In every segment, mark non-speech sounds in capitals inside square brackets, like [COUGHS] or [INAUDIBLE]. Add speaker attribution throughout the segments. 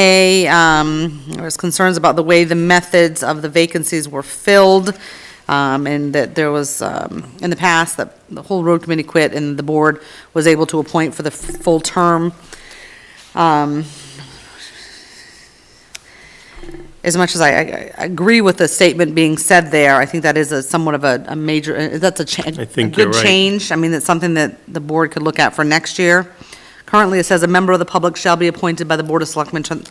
Speaker 1: A, um, there was concerns about the way the methods of the vacancies were filled, um, and that there was, um, in the past, that the whole road committee quit, and the board was able to appoint for the f- full term. Um, As much as I, I I agree with the statement being said there, I think that is a somewhat of a, a major, uh, that's a change.
Speaker 2: I think you're
Speaker 1: A
Speaker 2: right.
Speaker 1: good change, I mean, it's something that the board could look at for next year. Currently, it says a member of the public shall be appointed by the Board of Selectmen to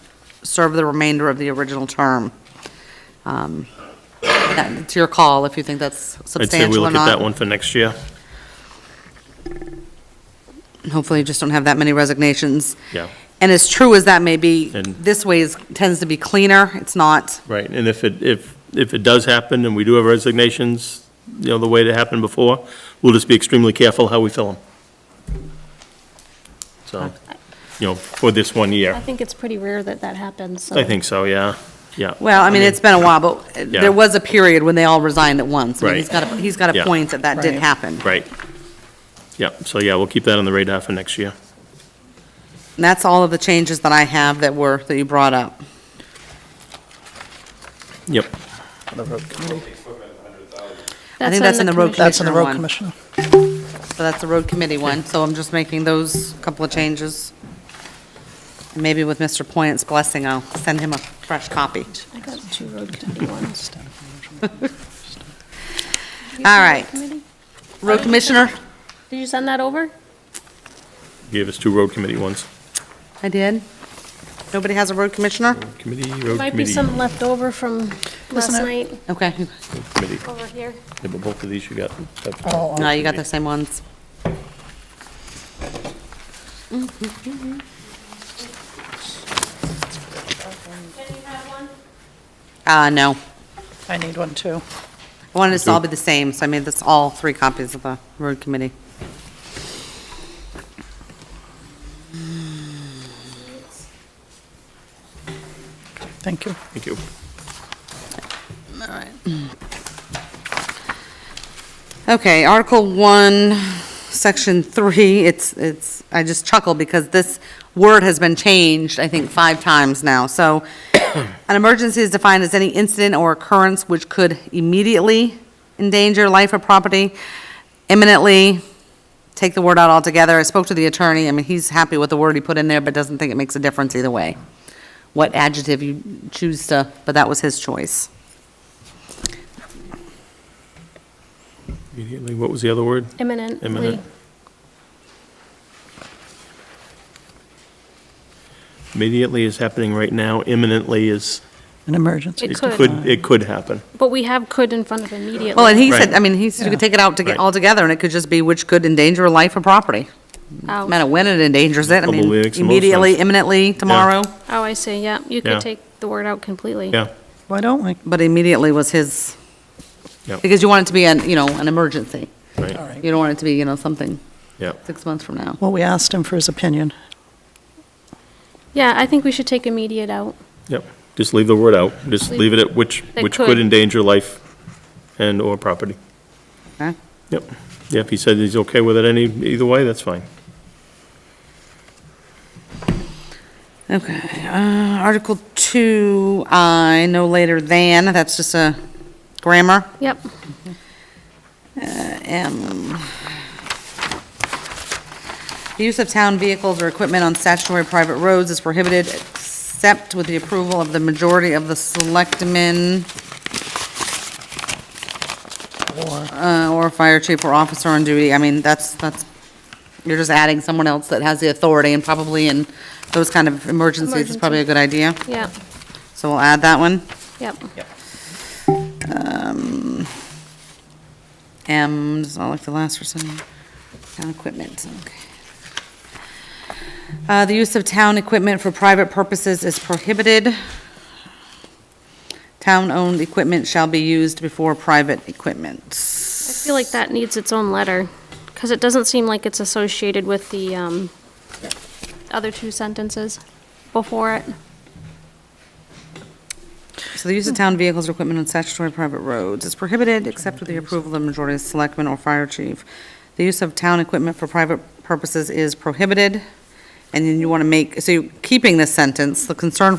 Speaker 1: serve the remainder of the original term. Um, that- It's your call if you think that's
Speaker 2: I'd say we
Speaker 1: substantial or
Speaker 2: look at that
Speaker 1: not.
Speaker 2: one for next year.
Speaker 1: Hopefully, you just don't have that many resignations.
Speaker 2: Yeah.
Speaker 1: And as true as that may be,
Speaker 2: And-
Speaker 1: this way is, tends to be cleaner, it's not,
Speaker 2: Right, and if it, if, if it does happen and we do have resignations, you know, the way that happened before, we'll just be extremely careful how we fill them. So, you know, for this one
Speaker 3: I
Speaker 2: year.
Speaker 3: think it's pretty rare that that happens, so.
Speaker 2: I think so, yeah, yeah.
Speaker 1: well, I mean, it's been a while,
Speaker 2: [LAUGHS]
Speaker 1: but
Speaker 2: Yeah.
Speaker 1: there was a period when they all resigned at once. I mean, He's
Speaker 2: Right.
Speaker 1: got, a- he's got a
Speaker 2: Yeah.
Speaker 1: point that that did happen.
Speaker 2: Right. Yeah, so yeah, we'll keep that on the radar for next year.
Speaker 1: And that's all of the changes that I have that were, that you brought up.
Speaker 2: Yep.
Speaker 1: I think that's in the road
Speaker 3: commission.
Speaker 4: That's in the
Speaker 1: Commissioner
Speaker 4: road
Speaker 1: one.
Speaker 4: commissioner.
Speaker 1: So that's the road committee one, so I'm just making those couple of changes. Maybe with Mr. Poynt's blessing, I'll send him a fresh copy.
Speaker 3: I got two road committee ones. You
Speaker 1: [LAUGHS] All
Speaker 3: have a road
Speaker 1: right.
Speaker 3: committee?
Speaker 1: Road Commissioner?
Speaker 3: Did you send that over?
Speaker 2: Gave us two road committee ones.
Speaker 1: I did. Nobody has a road commissioner?
Speaker 2: Committee, road
Speaker 3: Might be
Speaker 2: committee.
Speaker 3: some left over from last
Speaker 4: Listen up.
Speaker 3: night
Speaker 1: Okay,
Speaker 2: committee.
Speaker 3: over here.
Speaker 2: Yeah, but both of these you got.
Speaker 4: Oh,
Speaker 1: no, you got the same ones. Uh, no.
Speaker 4: I need one too.
Speaker 1: I wanted this to all be the same, so I made this all three copies of the road committee.
Speaker 4: Thank you.
Speaker 2: Thank you.
Speaker 1: Okay, Article 1, Section 3, it's, it's, I just chuckle because this word has been changed, I think, five times now. So [COUGHS] an emergency is defined as any incident or occurrence which could immediately endanger life or property, imminently, take the word out altogether. I spoke to the attorney, I mean, he's happy with the word he put in there, but doesn't think it makes a difference either way. What adjective you choose to, but that was his choice.
Speaker 2: Immediately, what was the other word?
Speaker 3: Imminently.
Speaker 2: Imminent. Immediately is happening right now, imminently is,
Speaker 4: An emergency.
Speaker 2: it
Speaker 3: Could.
Speaker 2: could, it could happen.
Speaker 3: But we have could in front of immediately.
Speaker 1: Well, and he said,
Speaker 2: Right.
Speaker 1: I mean, he said you could take it out to get
Speaker 2: Right.
Speaker 1: altogether, and it could just be which could endanger life or property. No
Speaker 3: Oh.
Speaker 1: matter when it endangers it, I mean,
Speaker 2: Probably makes the most
Speaker 1: immediately,
Speaker 2: sense.
Speaker 1: imminently, tomorrow,
Speaker 3: Oh, I see, yeah. You
Speaker 2: Yeah.
Speaker 3: could take the word out completely.
Speaker 2: Yeah,
Speaker 4: Why don't we?
Speaker 1: but immediately was his,
Speaker 2: yeah,
Speaker 1: because you want it to be an, you know, an emergency.
Speaker 4: All
Speaker 2: right,
Speaker 1: You
Speaker 4: right.
Speaker 1: don't want it to be, you know, something
Speaker 2: yeah.
Speaker 1: six months from now.
Speaker 4: Well, we asked him for his opinion.
Speaker 3: Yeah, I think we should take immediate out.
Speaker 2: Yep, just leave the word out, just
Speaker 3: Leave-
Speaker 2: leave it at which,
Speaker 3: That
Speaker 2: which could
Speaker 3: could.
Speaker 2: endanger life and/or property.
Speaker 1: Okay?
Speaker 2: Yep, yeah, if he said he's okay with it any, either way, that's fine.
Speaker 1: Okay, uh, Article two, I, no later than, that's just a grammar.
Speaker 3: Yep.
Speaker 1: M. Um, The use of town vehicles or equipment on statutory private roads is prohibited except with the approval of the majority of the selectmen uh, or fire chief or officer on duty. I mean, that's, that's, you're just adding someone else that has the authority and probably in those kind of emergencies is probably a good idea.
Speaker 3: Yep.
Speaker 1: So we'll add that one.
Speaker 3: Yep.
Speaker 1: Um, M does not like the last for some town equipment, okay. Uh, the use of town equipment for private purposes is prohibited. Town-owned equipment shall be used before private equipment.
Speaker 3: I feel like that needs its own letter, because it doesn't seem like it's associated with the um, other two sentences before it.
Speaker 1: So the use of town vehicles or equipment on statutory private roads is prohibited except with the approval of the majority of selectmen or fire chief. The use of town equipment for private purposes is prohibited. And then you want to make, so you're keeping this sentence, the concern